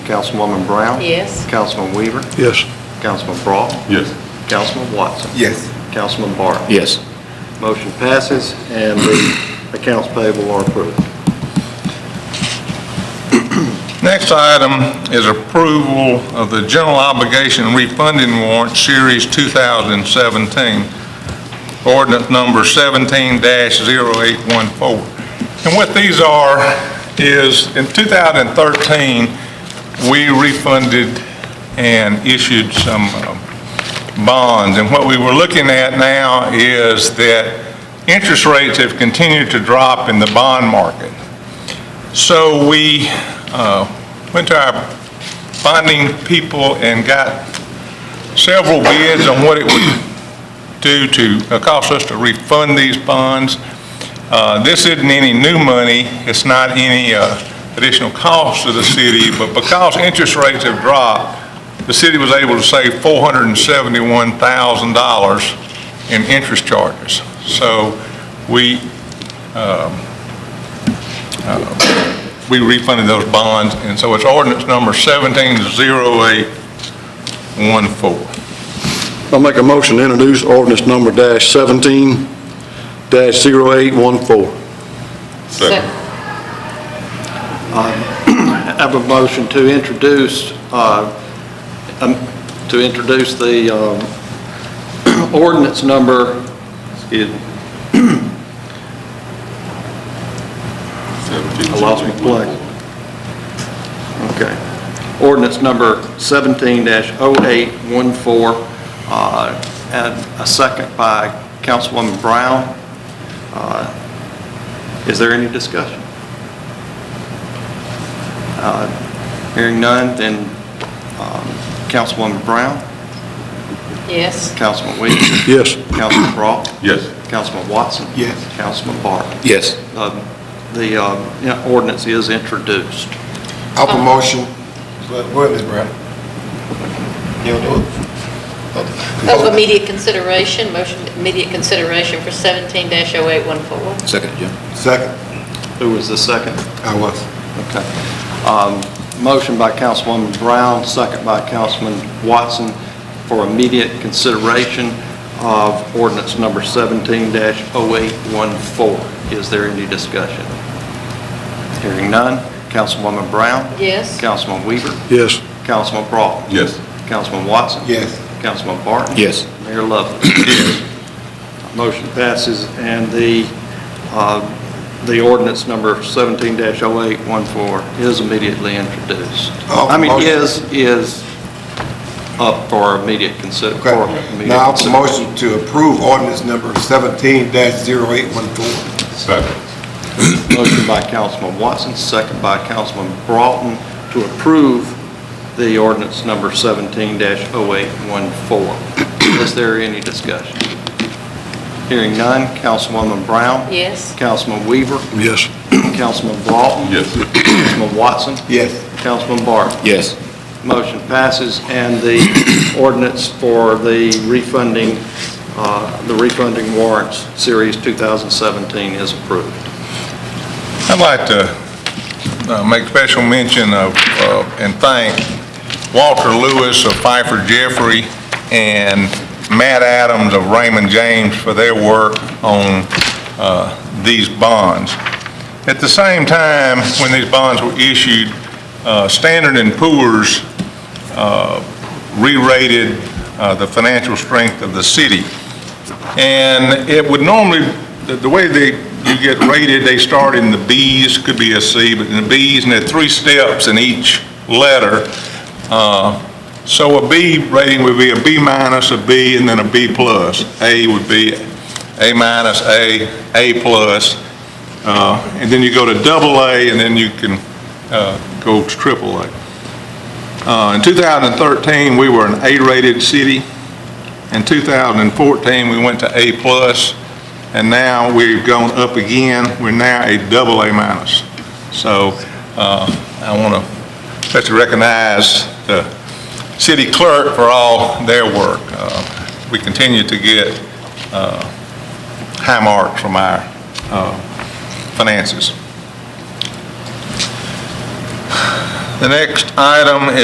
Councilwoman Brown? Yes. Councilman Weaver? Yes. Councilman Broughton? Yes. Councilman Watson? Yes. Councilman Barton? Yes. Motion passes, and the accounts payable are approved. Next item is approval of the general obligation refunding warrant, Series 2017, ordinance number 17-0814. And what these are is, in 2013, we refunded and issued some um, bonds. And what we were looking at now is that interest rates have continued to drop in the bond market. So we uh, went to our bonding people and got several bids on what it would do to, uh, cost us to refund these bonds. Uh, This isn't any new money, it's not any uh, additional cost to the city, but because interest rates have dropped, the city was able to save $471,000 in interest charges. So we we refunded those bonds, and so it's ordinance number 170814. I'll make a motion to introduce ordinance number dash seventeen dash zero eight one four. Second. I have a motion to introduce, uh, um, to introduce the um, ordinance number, excuse me, I lost my plug. Okay. Ordinance number 17-0814, uh, and a second by Councilwoman Brown. Uh, Is there any discussion? Uh, Hearing none, then um, Councilwoman Brown, Yes. Councilman Williams, Yes. Councilman Broughton, Yes. Councilman Watson. Yes. Councilman Barton. Yes. Um, The um, yeah, ordinance is introduced. Up a motion. Wait a minute, Brad. You don't do it? Of Oh, immediate consideration, motion, immediate consideration for 17-0814. Second, Jim. Second. Who was the second? I was. Okay. Um, Motion by Councilwoman Brown, second by Councilman Watson for immediate consideration of ordinance number 17-0814. Is there any discussion? Hearing none. Councilwoman Brown? Yes. Councilman Weaver? Yes. Councilman Broughton? Yes. Councilman Watson? Yes. Councilman Barton? Yes. Mayor Lovelace? Motion passes, and the, uh, the ordinance number 17-0814 is immediately introduced. Oh, I mean, motion. is, is up for immediate consider, Okay. for immediate Now, up a consider- motion to approve ordinance number seventeen dash zero eight one four. Second. Motion by Councilman Watson, second by Councilman Broughton to approve the ordinance number 17-0814. Is there any discussion? Hearing none, Councilwoman Brown? Yes. Councilman Weaver? Yes. Councilman Broughton? Yes. Councilman Watson? Yes. Councilman Barton? Yes. Motion passes, and the ordinance for the refunding, uh, the refunding warrants, Series 2017, is approved. I'd like to uh, make special mention of, uh, and thank Walter Lewis of Pfeiffer Jeffrey and Matt Adams of Raymond James for their work on uh, these bonds. At the same time, when these bonds were issued, uh, Standard and Poor's uh, re-rated uh, the financial strength of the city. And it would normally, the- the way they, you get rated, they start in the Bs, could be a C, but in the Bs, and there are three steps in each letter. Uh, So a B rating would be a B minus, a B, and then a B plus. A would be A minus, A, A plus. Uh, And then you go to double A, and then you can uh, go to triple A. Uh, In 2013, we were an A-rated city. In 2014, we went to A+, plus, and now we've gone up again. We're now a double A minus. So uh, I want to especially recognize the city clerk for all their work. Uh, We continue to get uh, high marks from our uh, finances. The next item